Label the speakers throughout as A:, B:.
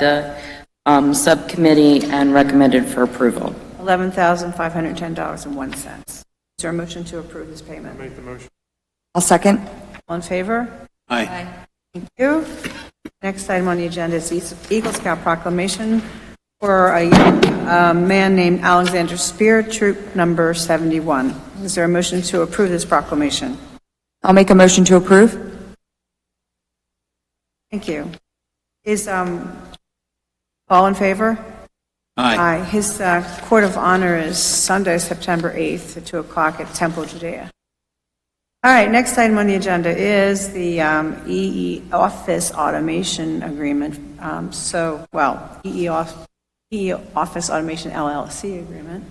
A: the um, subcommittee and recommended for approval.
B: $11,510.01. Is there a motion to approve this payment? Make the motion. I'll second. All in favor?
C: Aye.
B: Thank you. Next item on the agenda is Eas- Eagle Scout proclamation for a uh, man named Alexander Spear, troop number 71. Is there a motion to approve this proclamation?
D: I'll make a motion to approve.
B: Thank you. Is, um, all in favor?
C: Aye.
B: Aye. His uh, Court of Honor is Sunday, September 8th, at 2 o'clock at Temple Judea. All right, next item on the agenda is the um, EE Office Automation Agreement, um, so, well, EE Off- EE Office Automation LLC Agreement.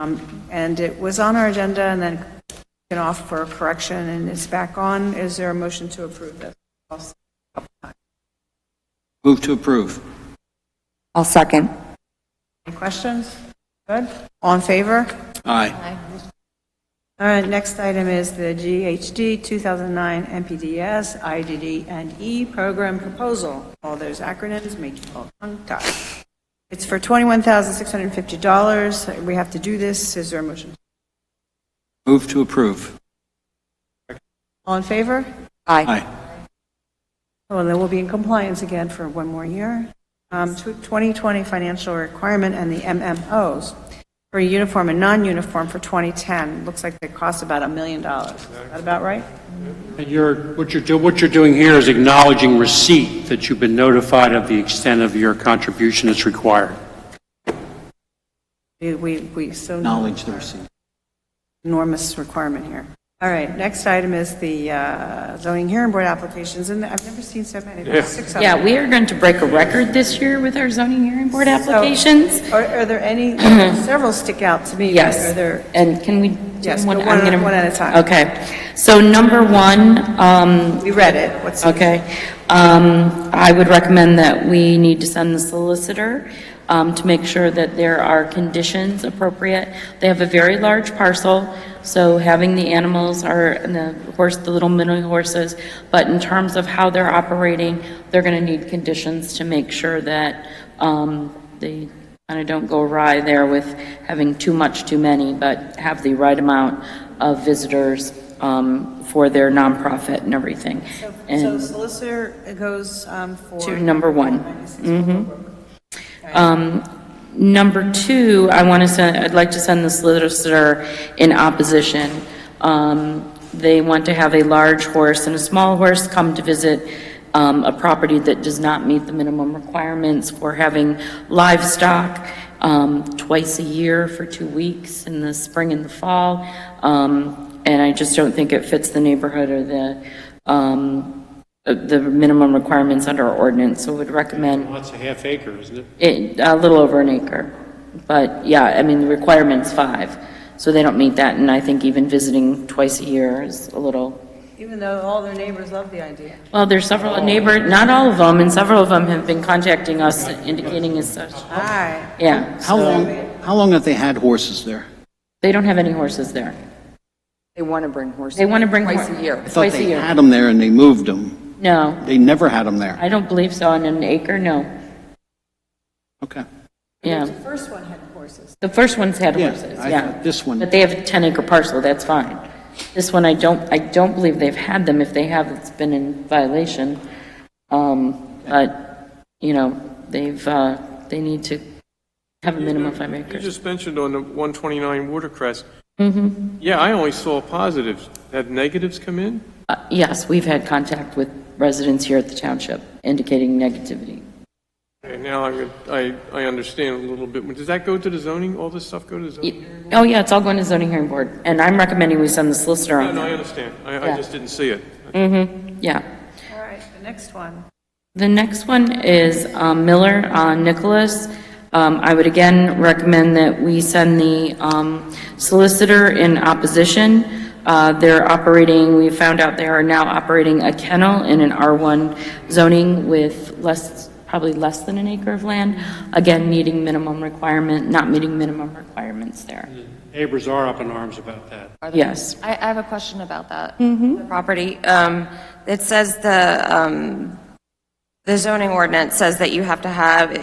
B: Um, And it was on our agenda and then taken off for correction, and it's back on. Is there a motion to approve this?
C: Move to approve.
D: I'll second.
B: Any questions? Good? All in favor?
C: Aye.
B: All right, next item is the GHD 2009 MPDS IDD and E program proposal. All those acronyms make you all tongue-tied. It's for $21,650. We have to do this. Is there a motion?
C: Move to approve.
B: All in favor?
D: Aye.
C: Aye.
B: Well, then we'll be in compliance again for one more year. Um, tw- 2020 financial requirement and the MMOs for uniform and non-uniform for 2010. Looks like they cost about a million dollars. Is that about right?
E: And you're, what you're, do- what you're doing here is acknowledging receipt that you've been notified of the extent of your contribution that's required.
B: We, we, we so.
C: Acknowledge the receipt.
B: enormous requirement here. All right, next item is the uh, zoning hearing board applications, and I've never seen so many, There's six of
A: Yeah,
B: them.
A: we are going to break a record this year with our zoning hearing board applications.
B: Are are there any, several stick out to me. but Are
A: Yes.
B: there,
A: And can we? do
B: Yes, go
A: I'm
B: one at-
A: gonna-
B: one at a time.
A: Okay. So number one, um,
B: we read it, what's,
A: Okay. Um, I would recommend that we need to send the solicitor um, to make sure that there are conditions appropriate. They have a very large parcel, so having the animals are, and the horse, the little mini horses, but in terms of how they're operating, they're going to need conditions to make sure that um, they kind of don't go awry there with having too much, too many, but have the right amount of visitors um, for their nonprofit and everything. And-
B: so solicitor goes um, for.
A: to number one. Mhm. Um, Number two, I want to send, I'd like to send the solicitor in opposition. Um, They want to have a large horse and a small horse come to visit um, a property that does not meet the minimum requirements for having livestock um, twice a year for two weeks in the spring and the fall. Um, And I just don't think it fits the neighborhood or the, um, uh, the minimum requirements under our ordinance, so would recommend
E: That's a half acre, isn't it?
A: it, a little over an acre. But yeah, I mean, the requirement's five, so they don't meet that, and I think even visiting twice a year is a little,
B: Even though all their neighbors love the idea.
A: well, there's several neighbor, not all of them, and several of them have been contacting us indicating as such.
B: All right,
A: Yeah,
C: How long, how long have they had horses there?
A: they don't have any horses there.
D: They want to bring horses.
A: They want to bring.
D: Twice
A: hor-
D: a year.
C: I thought
A: Twice a
C: they
A: year.
C: had them there and they moved them.
A: No,
C: They never had them there.
A: I don't believe so, on an acre, no,
C: Okay.
A: yeah.
B: the first one had horses.
A: The first one's had
C: Yeah,
A: horses,
C: I
A: yeah.
C: thought this one-
A: But they have a 10-acre parcel, that's fine. This one, I don't, I don't believe they've had them. If they have, it's been in violation. Um, But, you know, they've, uh, they need to have a minimum of five
F: You
A: acres.
F: just mentioned on the 129 Watercress. Mm-hmm. Yeah, I only saw positives. Have negatives come in?
A: Uh, Yes, we've had contact with residents here at the township indicating negativity.
F: Okay, now I'm, I, I understand a little bit. Does that go to the zoning? All this stuff go to the zoning?
A: Oh, yeah, it's all going to zoning hearing board, and I'm recommending we send the solicitor
F: No,
A: on
F: no, I
A: that.
F: understand. I,
A: Yeah.
F: I just didn't see it.
A: Mm-hmm, yeah.
B: All right, the next one.
A: The next one is um, Miller on Nicholas. Um, I would again recommend that we send the um, solicitor in opposition. Uh, They're operating, we found out they are now operating a kennel in an R1 zoning with less, probably less than an acre of land, again, meeting minimum requirement, not meeting minimum requirements there.
E: Neighbors are up in arms about that.
A: Yes.
G: I, I have a question about that. The property. Um, It says the, um, The zoning ordinance says that you have to have,